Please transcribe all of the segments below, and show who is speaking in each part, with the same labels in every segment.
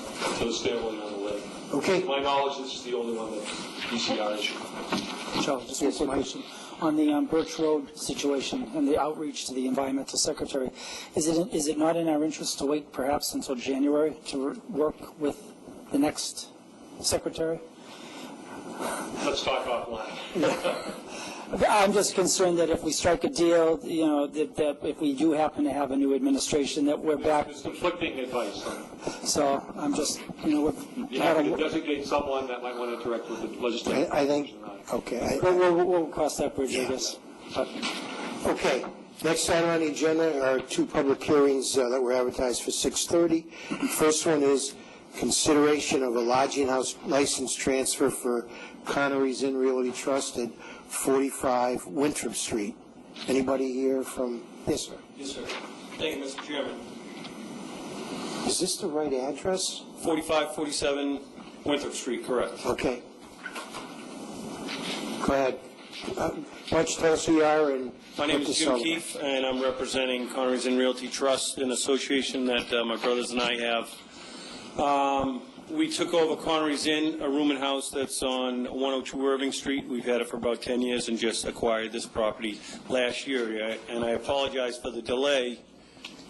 Speaker 1: for the stairway on the way.
Speaker 2: Okay.
Speaker 1: To my knowledge, this is the only one that DCR issued.
Speaker 3: Charlie, just one quick question. On the um, Birch Road situation and the outreach to the environmental secretary, is it, is it not in our interest to wait perhaps until January to re- work with the next secretary?
Speaker 1: Let's talk offline.
Speaker 3: I'm just concerned that if we strike a deal, you know, that, that if we do happen to have a new administration, that we're back.
Speaker 1: There's conflicting advice.
Speaker 3: So I'm just, you know, we've
Speaker 1: You
Speaker 3: had
Speaker 1: have to
Speaker 3: a,
Speaker 1: designate someone that might want to interact with the legislature.
Speaker 2: I I think, okay,
Speaker 3: we'll,
Speaker 2: I-
Speaker 3: we'll, we'll cross that bridge, I
Speaker 2: Yeah.
Speaker 3: guess.
Speaker 2: okay. Next item on the agenda are two public hearings uh, that were advertised for 6:30. First one is consideration of a lodging house license transfer for Connery's Inn Realty Trust at 45 Winthrop Street. Anybody here from, yes, sir?
Speaker 4: Yes, sir. Thank you, Mr. Chairman.
Speaker 2: Is this the right address?
Speaker 4: 4547 Winthrop Street, correct.
Speaker 2: Okay. Go ahead. Uh, Why don't you tell us who you are and...
Speaker 4: My name
Speaker 2: what
Speaker 4: is
Speaker 2: this
Speaker 4: Jim
Speaker 2: all-
Speaker 4: Keefe, and I'm representing Connery's and Realty Trust, an association that uh, my brothers and I have. Um, We took over Connery's Inn, a room and house that's on 102 Irving Street. We've had it for about 10 years and just acquired this property last year. I- And I apologize for the delay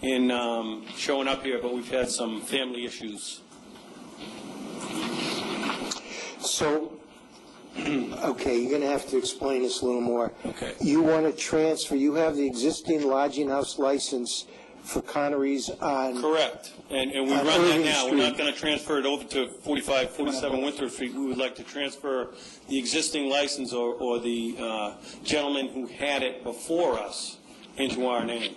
Speaker 4: in um, showing up here, but we've had some family issues.
Speaker 2: So, okay, you're going to have to explain this a little more.
Speaker 4: Okay.
Speaker 2: You want to transfer, you have the existing lodging house license for Connery's on,
Speaker 4: Correct, and, and we
Speaker 2: Uh,
Speaker 4: run that
Speaker 2: Irving
Speaker 4: now, we're not
Speaker 2: Street.
Speaker 4: going to transfer it over to 45, 47 Winthrop Street, we would like to transfer the existing license or, or the uh, gentleman who had it before us into our name,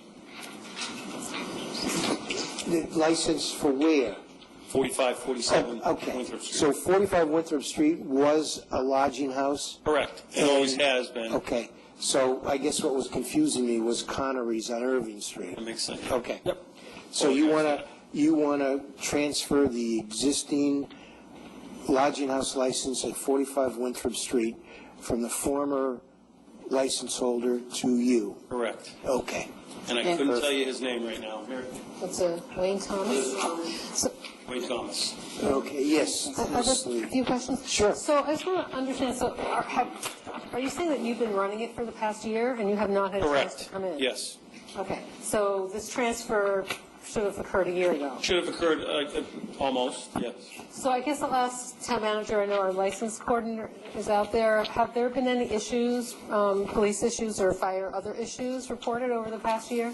Speaker 2: the license for where? Oh,
Speaker 4: 45, 47
Speaker 2: Okay,
Speaker 4: Winthrop
Speaker 2: so
Speaker 4: Street.
Speaker 2: 45 Winthrop Street was a lodging house?
Speaker 4: Correct, it always has been,
Speaker 2: Okay, so I guess what was confusing me was Connery's on Irving Street.
Speaker 4: that makes sense.
Speaker 2: Okay. Yep. So you want to, you want to transfer the existing lodging house license at 45 Winthrop Street from the former license holder to you?
Speaker 4: Correct,
Speaker 2: Okay.
Speaker 4: and I
Speaker 5: Yeah.
Speaker 4: couldn't tell you his name right now,
Speaker 5: That's uh, Wayne Thomas. So,
Speaker 4: Wayne Thomas.
Speaker 2: Okay, yes.
Speaker 5: I I have
Speaker 2: Ms.
Speaker 5: a
Speaker 2: Lee.
Speaker 5: few questions.
Speaker 2: Sure.
Speaker 5: So I just want to understand, so are, have, are you saying that you've been running it for the past year and you have not had a chance to
Speaker 4: Correct,
Speaker 5: come in?
Speaker 4: yes.
Speaker 5: Okay, so this transfer should have occurred a year ago.
Speaker 4: Should have occurred, uh, uh, almost, yes.
Speaker 5: So I guess I'll ask town manager, I know our license coordinator is out there. Have there been any issues, um, police issues or fire, other issues reported over the past year?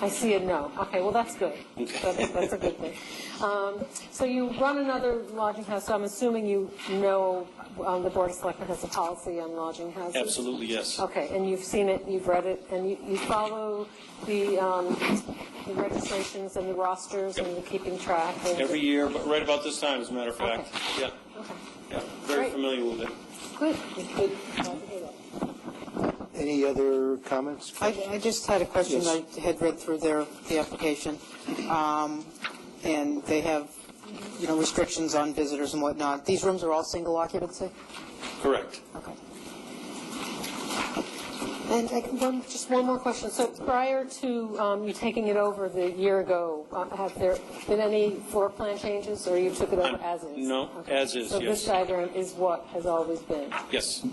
Speaker 5: I see a no. Okay, well, that's good. That's that's a good thing. Um, So you run another lodging house, so I'm assuming you know um, the Board of Selectmen has a policy on lodging houses?
Speaker 4: Absolutely, yes.
Speaker 5: Okay, and you've seen it, you've read it, and you you follow the um, the registrations and the rosters and the keeping track? and-
Speaker 4: Every year, but right about this time, as a matter of fact, yeah.
Speaker 5: Okay.
Speaker 4: Yeah, very
Speaker 5: Great.
Speaker 4: familiar with it.
Speaker 5: Good, good. Glad to hear that.
Speaker 2: Any other comments?
Speaker 6: I, I just had a question. I
Speaker 2: Yes.
Speaker 6: had read through their, the application, um, and they have, you know, restrictions on visitors and whatnot. These rooms are all single occupancy?
Speaker 4: Correct.
Speaker 6: Okay.
Speaker 5: And I- one, just one more question. So prior to um, you taking it over the year ago, uh, have there been any floor plan changes, or you took it over
Speaker 4: Um,
Speaker 5: as is?
Speaker 4: no,
Speaker 5: Okay.
Speaker 4: as is,
Speaker 5: So this
Speaker 4: yes.
Speaker 5: diagram is what has always been?
Speaker 4: Yes.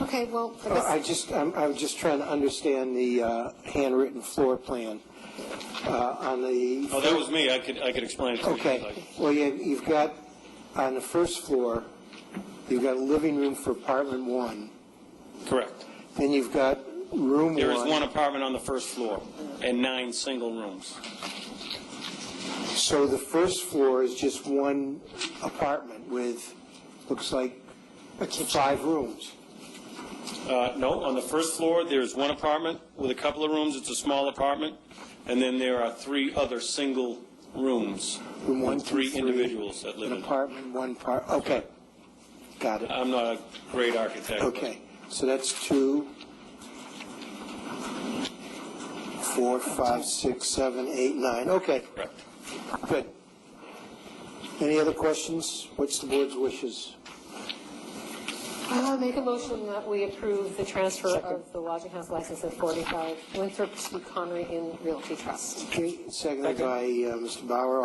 Speaker 5: Okay, well, I
Speaker 2: I
Speaker 5: guess,
Speaker 2: just, I'm, I'm just trying to understand the uh, handwritten floor plan uh, on the
Speaker 4: Oh, that was me. I could, I could explain it to you. if you'd
Speaker 2: Okay,
Speaker 4: like.
Speaker 2: well, you- you've got, on the first floor, you've got a living room for apartment one,
Speaker 4: Correct.
Speaker 2: then you've got room one.
Speaker 4: There is one apartment on the first floor and nine single rooms.
Speaker 2: So the first floor is just one apartment with, looks like, five rooms.
Speaker 4: Uh, no, on the first floor, there's one apartment with a couple of rooms. It's a small apartment. And then there are three other single rooms.
Speaker 2: Room one,
Speaker 4: with
Speaker 2: two,
Speaker 4: three
Speaker 2: three,
Speaker 4: individuals that live
Speaker 2: An
Speaker 4: in. it.
Speaker 2: apartment, one part, okay, got it.
Speaker 4: I'm not a great architect. but-
Speaker 2: Okay, so that's two, four, five, six, seven, eight, nine, okay.
Speaker 4: Correct.
Speaker 2: Good. Any other questions? What's the board's wishes?
Speaker 5: I'll make a motion that we approve the transfer of the lodging house license at 45 Winthrop to Connery Inn Realty Trust.
Speaker 2: Okay, seconded by uh, Mr. Bauer.